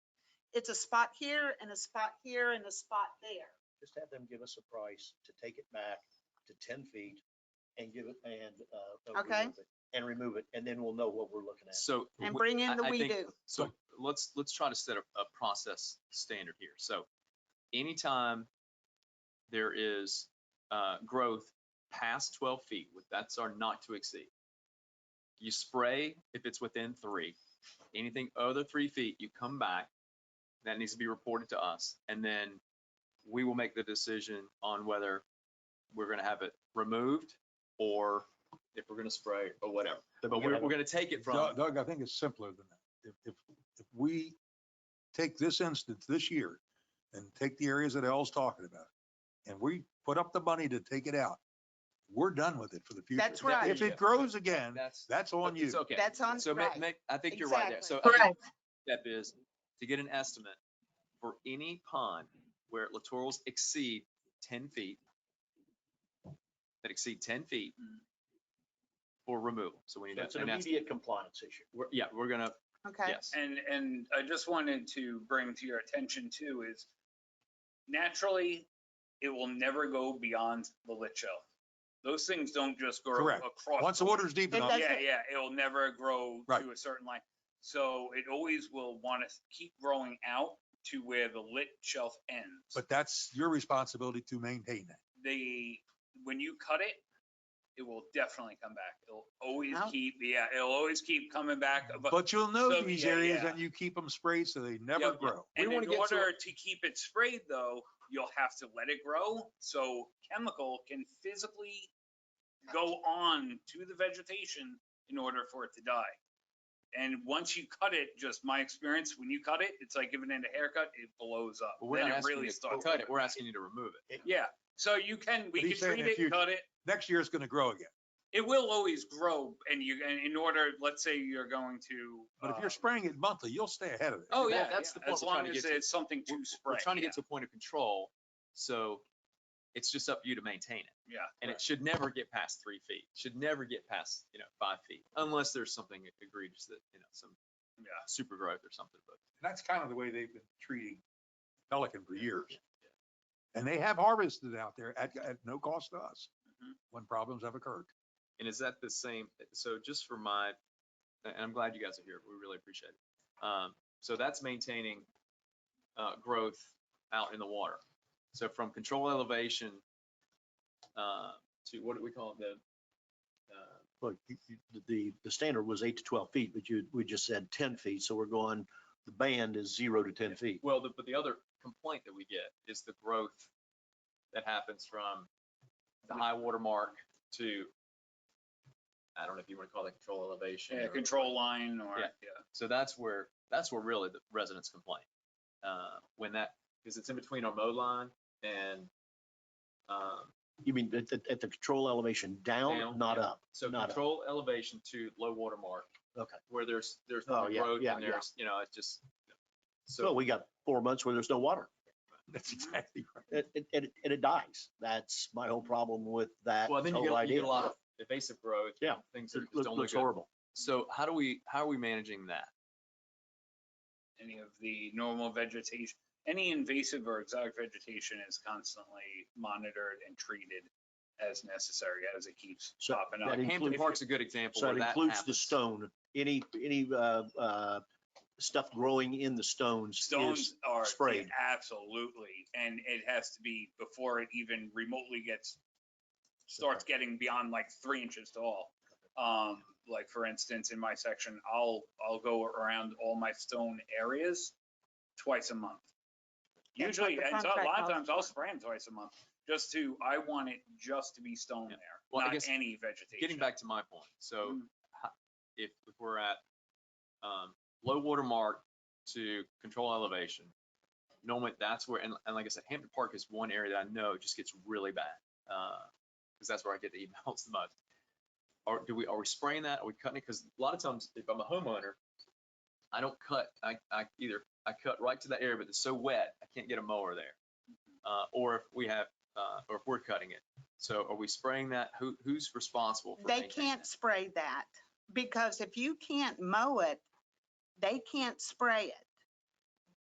it's a spot here and a spot here and a spot there. just have them give us a price to take it back to ten feet and give it, and, uh. uh, Okay. remove it, And remove it, and then we'll know what we're looking at. So. And wh- bring in I- the I we think- do. So let's, let's try to set a, a process standard here. So anytime there is, uh, growth past twelve feet, with- that's our not to exceed. You spray if it's within three. Anything other three feet, you come back. That needs to be reported to us. And then we will make the decision on whether we're gonna have it removed or if we're gonna spray or whatever. But we're, we're gonna take it from. Doug, Doug, I think it's simpler than that. If, if, if we take this instance this year and take the areas that Al's talking about, and we put up the money to take it out, we're done with it for the future. That's right. If it grows again, That's. that's on you. It's okay. That's on, So ma- right. ma- I think you're right there. So Exactly. I think step is to get an estimate for any pond where littorals exceed ten feet, that exceed ten feet Mm-hmm. for removal. So we need So It's to, an and that's, immediate compliance issue. we're- yeah, we're gonna, Okay. yes. And, and I just wanted to bring to your attention too is naturally, it will never go beyond the lit shelf. Those things don't just grow Correct. across. Once the water's deep It enough, does- Yeah, yeah, it'll never grow Right. to a certain line. So it always will want to keep growing out to where the lit shelf ends. but that's your responsibility to maintain that. they, when you cut it, it will definitely come back. It'll always Out. keep, yeah, it'll always keep coming back. But But you'll know so, these yeah, areas yeah. and you keep them sprayed so they never Yep. grow. We And in wanna get to a- order to keep it sprayed though, you'll have to let it grow. So chemical can physically go on to the vegetation in order for it to die. And once you cut it, just my experience, when you cut it, it's like giving it a haircut, it blows up. But We're Then not it asking really you to starts. cut it, we're asking you to remove it. Yeah, so you can, we But can he's saying treat if you- it, cut it. Next year it's gonna grow again. It will always grow and you, and in order, let's say you're going to. But if uh, you're spraying it monthly, you'll stay ahead of it. Oh, yeah, That's that's the the point As we're trying long to as get to. it's something We're- to spray. We're trying to yeah, get to a point of control, so it's just up to you to maintain it. Yeah. And it should never get past three feet, should never get past, you know, five feet, unless there's something egregious that, you know, some Yeah. super growth or something, but. And that's kind of the way they've been treating Pelican for years. And they have harvested out there at, at no cost to us Mhm. when problems have occurred. And is that the same, so just for my, and I'm glad you guys are here, we really appreciate it. Um, so that's maintaining, uh, growth out in the water. So from control elevation, uh, to what do we call it, the, uh, Look, you- you- the, the standard was eight to twelve feet, but you, we just said ten feet, so we're going, the band is zero to ten feet. Well, the, but the other complaint that we get is the growth that happens from the high water mark to, I don't know if you want to call it control elevation. Yeah, or- control line or, Yeah. yeah. So that's where, that's where really the residents complain. Uh, when that, because it's in between our mow line and, um, You mean at, the- at the control elevation down, Down, not yeah. up? so Not up. control elevation to low water mark. Okay. Where there's, there's Oh, no yeah, growth yeah, and yeah. there's, you know, it's just, So so we got four months where there's no water. That's exactly right. It, it, and it- and it dies. That's my whole problem with that Well, then you whole get, you idea. get a lot of evasive growth. Yeah. Things that It just look- don't look Looks good. horrible. So how do we, how are we managing that? any of the normal vegetation, any invasive or exotic vegetation is constantly monitored and treated as necessary as it keeps So popping up. that is- Hampton includes- Park's a good example So where it that includes the happens. stone, any, any, uh, uh, stuff growing in the stones. is- Stones are, yeah, sprayed. absolutely, and it has to be before it even remotely gets, starts getting beyond like three inches tall. Um, like for instance, in my section, I'll, I'll go around all my stone areas twice a month. That's what Usually, the and so a contract lot of calls times I'll spray them twice a month, just to, I want it just to be stone Yeah. there, Well, I not guess any vegetation. Getting back to my point, so Mm-hmm. Mm. ho- if, if we're at, um, low water mark to control elevation, normally that's where, and, and like I said, Hampton Park is one area that I know just gets really bad, uh, because that's where I get the emails the most. Are, do we, are we spraying that? Are we cutting it? Because a lot of times if I'm a homeowner, I don't cut, I, I either, I cut right to that area, but it's so wet, I can't get a mower there. Uh, or if we have, uh, or if we're cutting it. So are we spraying that? Who, who's responsible for They maintaining can't that? spray that because if you can't mow it, they can't spray it.